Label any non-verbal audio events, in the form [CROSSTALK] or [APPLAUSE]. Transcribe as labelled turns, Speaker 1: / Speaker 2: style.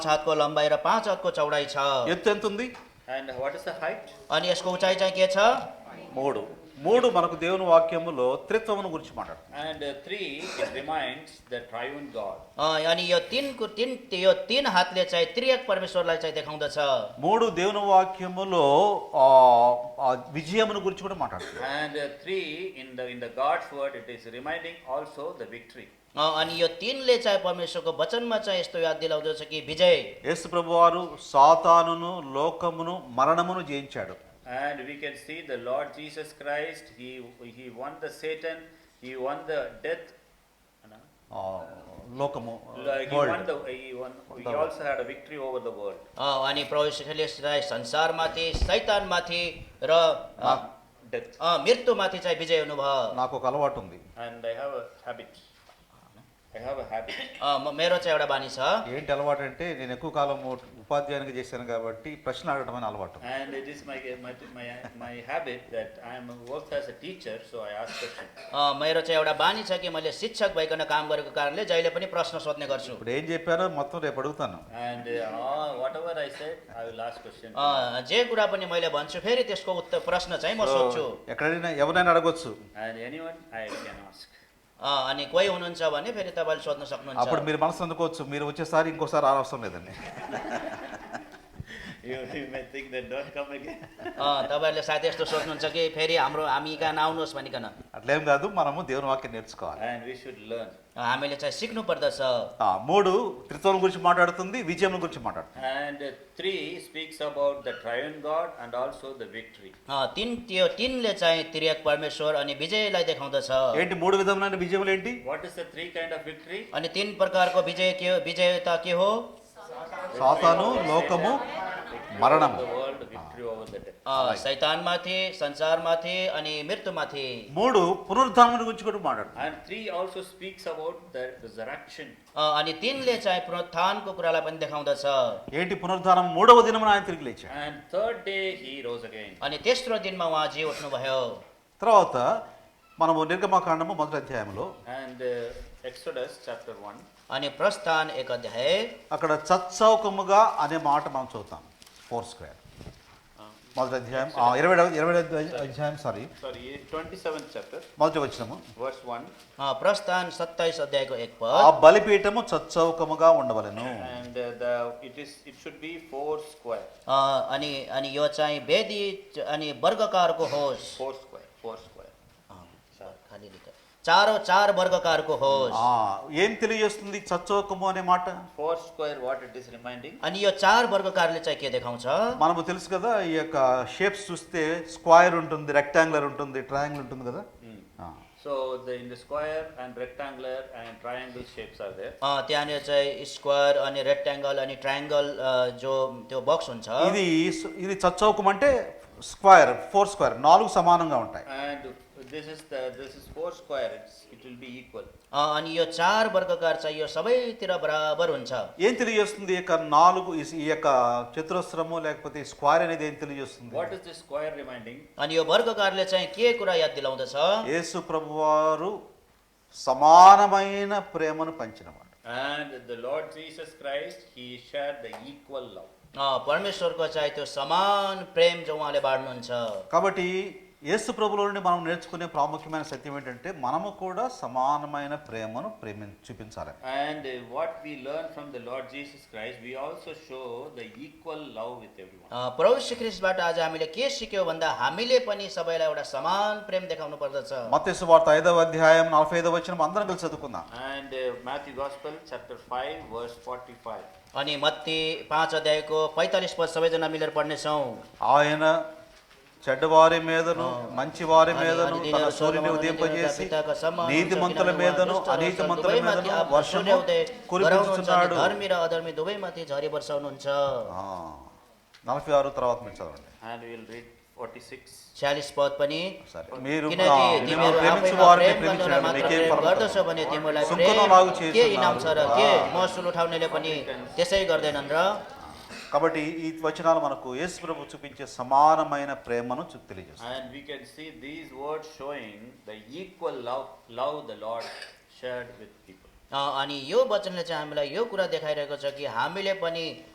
Speaker 1: छ हातको लम्बाइ र पाँच हातको चौडाइ छ
Speaker 2: ఎత్తు ఎంత ఉంది
Speaker 3: And what is the height?
Speaker 1: अनि यसको उचाइ चाहिँ के छ
Speaker 2: మూడు మూడు మనకు దేవుని వాక్యములో త్రిత్వమును గురించి మాట్లాడుతుంది
Speaker 3: And uh, three, it reminds the triune God.
Speaker 1: अ, अनि यो तिनको तिन यो तिन हातले चाहिँ त्रिएक परमेश्वरलाई चाहिँ देखाउँदछ
Speaker 2: మూడు దేవుని వాక్యములో ఆ, ఆ విజయమును గురించి కూడా మాట్లాడుతుంది
Speaker 3: And uh, three, in the, in the God's word, it is reminding also the victory.
Speaker 1: अ, अनि यो तिनले चाहिँ परमेश्वरको वचनमा चाहिँ यस्तो याद दिलाउँदछ कि विजय
Speaker 2: యేసు ప్రభువారు సాతానును లోకమును మరణమును జయించాడు
Speaker 3: And we can see the Lord Jesus Christ, he, he won the Satan, he won the death. no?
Speaker 2: ఆ, లోకము
Speaker 3: Like he
Speaker 2: world.
Speaker 3: won Uh, the, he won, he
Speaker 2: The-
Speaker 3: also had a victory over the world.
Speaker 1: अ, अनि प्रवेशले चाहिँ संसारमाथि शैतानमाथि र अ,
Speaker 2: నా-
Speaker 3: Death.
Speaker 1: अ, మृत्युमाथि चाहिँ विजय हुनुभयो
Speaker 2: నాకు ఒక అలవాటు ఉంది
Speaker 3: And I have a habit. I have a habit.
Speaker 1: अ, म- मेरो चाहिँ एउटा బాनी छ
Speaker 2: ఏంటి అలవాటు అంటే నేను ఎక్కువ కాలం ఉపాధ్యాయునికి చేశాను కాబట్టి ప్రశ్న అడగడం అనే అలవాటు
Speaker 3: And it is my, my, my, my habit that I am worked as a teacher, so I ask questions.
Speaker 1: अ, मेरो चाहिँ एउटा बानी छ कि मैले शिक्षक भइकन काम गरेको कारणले जहिले पनि प्रश्न सोध्ने गर्छु
Speaker 2: ఇప్పుడు ఏం చెప్పారో మొత్తం రేపు అడుగుతాను
Speaker 3: And uh, all- whatever I said, I will ask question.
Speaker 1: अ, जे कुरा पनि मैले भन्छु फेरि त्यसको उत्तर प्रश्न चाहिँ म सोध्छु
Speaker 2: ఎక్కడైనా ఎవరైనా అడగొచ్చు
Speaker 3: And anyone, I can ask.
Speaker 1: अ, अनि कोही हुनुहुन्छ भने फेरि तपाईँले सोध्न
Speaker 2: అప్పుడు
Speaker 1: सक्नुहुन्छ
Speaker 2: మీరు మనసు అందుకోవచ్చు మీరు వచ్చేసారి ఇంకోసారి రావసరం లేదండి
Speaker 3: [LAUGHS] You, you may think that don't come again.
Speaker 1: अ, तपाईँहरूले सायद यस्तो सोध्नुहुन्छ कि फेरि हाम्रो हामी कहाँ नआउनुहोस् भनिकन
Speaker 2: అట్లేం కాదు మనము దేవుని వాక్యం నేర్చుకోవాలి
Speaker 3: [LAUGHS] And we should learn.
Speaker 1: अ, हामीले चाहिँ సిక్ను पर्दछ
Speaker 2: ఆ, మూడు త్రిత్వం గురించి మాట్లాడుతుంది విజయం గురించి మాట్లాడుతుంది
Speaker 3: And uh, three speaks about the triune God and also the victory.
Speaker 1: अ, तिन त्यो तिनले चाहिँ त्रियक परमेश्वर अनि विजयलाई देखाउँदछ
Speaker 2: ఏంటి మూడు విధములైన విజయములు ఏంటి
Speaker 3: What is the three kind of victory?
Speaker 1: अनि तिन प्रकारको विजय के हो विजयता के हो
Speaker 2: సాతాను లోకము
Speaker 3: Victory Ah. over
Speaker 2: మరణము
Speaker 3: the world, victory over the death.
Speaker 1: अ, शैतानमाथि संसारमाथि अनि मृत्युमाथि
Speaker 2: మూడు పునరుద్ధానం గురించి కూడా మాట్లాడుతుంది
Speaker 3: And three also speaks about the resurrection.
Speaker 1: अ, अनि तिनले चाहिँ पुनरुत्थानको कुरालाई पनि देखाउँदछ
Speaker 2: ఏంటి పునరుద్ధానం మూడవ దినమున ఆయన తిరిగి లేచాడు
Speaker 3: And third day, he rose again.
Speaker 1: अनि तेस्रो दिनमा उहाँ जी उठ्नुभयो
Speaker 2: తర్వాత మనము నిర్గమకాండము మొదటి అధ్యాయంలో
Speaker 3: And uh, Exodus chapter 1.
Speaker 1: अनि प्रस्थान एक अध्याय
Speaker 2: అక్కడ చచ్చౌకముగా అనే మాట మనం చూద్దాం ఫోర్ స్క్వేర్ మొదటి అధ్యాయం ఆ, ఇరవై ఇరవై అధ్యాయం సారీ
Speaker 3: Sorry, 27th chapter,
Speaker 2: మొదటి వచ్చినము
Speaker 3: verse 1.
Speaker 1: अ, प्रस्थान सत्ताइस अध्यायको एक
Speaker 2: ఆ
Speaker 1: पद
Speaker 2: బలిపీఠము చచ్చౌకముగా ఉండవలెను
Speaker 3: And uh, the, it is, it should be four square,
Speaker 1: अ, अनि अनि यो चाहिँ वेदी च- अनि वर्गकारको होस्
Speaker 3: four square, four square.
Speaker 1: अ, खाली लेख। चारो चार वर्गकारको होस्
Speaker 2: ఆ, ఏం తెలియజేస్తుంది చచ్చౌకము అనే మాట
Speaker 3: Four square, what it is reminding?
Speaker 1: अनि यो चार वर्गकारले चाहिँ के देखाउँछ
Speaker 2: మనము తెలుసు కదా ఈ యొక్క షేప్స్ చూస్తే స్క్వైర్ ఉంటుంది రెక్టాంగులర్ ఉంటుంది ట్రయాంగిల్ ఉంటుంది కదా
Speaker 3: Mm.
Speaker 2: ఆ.
Speaker 3: So the, in the square and rectangular and triangle shapes are there.
Speaker 1: अ, त्यहाँनिर चाहिँ स्क्वायर अनि रेक्ट्याङ्गल अनि ट्रायङ्गल जो त्यो बक्स हुन्छ
Speaker 2: ఇది స్- ఇది చచ్చౌకం అంటే స్క్వైర్ ఫోర్ స్క్వైర్ నాలుగు సమానంగా ఉంటాయి
Speaker 3: And this is the, this is four square, it's, it will be equal.
Speaker 1: अ, अनि यो चार वर्गकार चाहिँ यो सबैतिर बराबर हुन्छ
Speaker 2: ఏం తెలియజేస్తుంది ఈ యొక్క నాలుగు ఈ- ఈ యొక్క చతురస్రము లేకపోతే ఈ స్క్వైర్ అనేది ఏం తెలియజేస్తుంది
Speaker 3: What is this square reminding?
Speaker 1: अनि यो वर्गकारले चाहिँ के कुरा याद दिलाउँदछ
Speaker 2: యేసు ప్రభువారు సమానమైన ప్రేమను పంచినవాడు
Speaker 3: And the Lord Jesus Christ, he shared the equal love.
Speaker 1: अ, परमेश्वरको चाहिँ त्यो समान प्रेम जो उहाँले बाँड्नुहुन्छ
Speaker 2: కాబట్టి యేసు ప్రభులో నుండి మనం నేర్చుకునే ప్రాముఖ్యమైన సత్యం ఏంటంటే మనము కూడా సమానమైన ప్రేమను ప్రేమి చూపించాలి
Speaker 3: And uh, what we learn from the Lord Jesus Christ, we also show the equal love with everyone.
Speaker 1: अ, प्रभु श्री ख्रिस्टबाट आज हामीले के सिक्यौँ भन्दा हामीले पनि सबैलाई एउटा समान प्रेम देखाउनु पर्दछ
Speaker 2: మత్స్సు వార్త ఐదవ అధ్యాయం నలభై ఐదవ వచ్చిన అందరం కలిసి చదువుకుందాం
Speaker 3: And uh, Matthew Gospel, chapter 5, verse 45.
Speaker 1: अनि मत्ती पाँच अध्यायको पैँतालिस पद सबैजना मिलेर पढ्नेछौँ
Speaker 2: ఆయన చెడ్డవారి మీదను మంచి వారి
Speaker 1: अनि-
Speaker 2: మీదను
Speaker 1: अनि
Speaker 2: తన
Speaker 1: तिनीहरू
Speaker 2: సూర్యుని
Speaker 1: स्वर्गमा
Speaker 2: ఉదయింపజేసి
Speaker 1: हुनुहुन्छ, पिताका सम्मान हुन्छ,
Speaker 2: నీతిమంతుల
Speaker 1: किनभने उहाँ
Speaker 2: మీదను
Speaker 1: दुष्ट र
Speaker 2: అనీతిమంతుల
Speaker 1: दुवैमाथि
Speaker 2: మీదను
Speaker 1: आफ्नो
Speaker 2: వర్షము
Speaker 1: सूर्योदय गराउनुहुन्छ अनि
Speaker 2: కురిపించుతున్నాడు
Speaker 1: धर्मी र अधर्मी दुवैमाथि झरी वर्षाउनुहुन्छ
Speaker 2: ఆ, నలభై ఆరు తర్వాత మీరు చదవండి
Speaker 3: And we'll read 46.
Speaker 1: छ्यालिस पद पनि
Speaker 2: సరే మీరు ఆ,
Speaker 1: किनकि
Speaker 2: మిమ్మల్ని
Speaker 1: तिमीहरू
Speaker 2: ప్రేమించు
Speaker 1: आफैमा
Speaker 2: వారిని
Speaker 1: प्रेम गर्दैन
Speaker 2: ప్రేమించండి
Speaker 1: मात्र
Speaker 2: మీకేం
Speaker 1: प्रेम गर्दछ
Speaker 2: పర్వాలేదు
Speaker 1: भने तिमीलाई
Speaker 2: सुनको
Speaker 1: प्रेम
Speaker 2: नलागु
Speaker 1: के
Speaker 2: చేస్తున్నావు.
Speaker 1: इनाम छ र
Speaker 2: ఆ.
Speaker 1: के महसुल उठाउनेले पनि त्यसै गर्दैनन् र
Speaker 2: కాబట్టి ఈ వచనాలు మనకు యేసు ప్రభు చూపించే సమానమైన ప్రేమను చూ- తెలియజేస్తాయి
Speaker 3: And we can see these words showing the equal love, love the Lord shared with people.
Speaker 1: अ, अनि यो वचनले चाहिँ हामीलाई यो कुरा देखाइरहेको छ कि हामीले पनि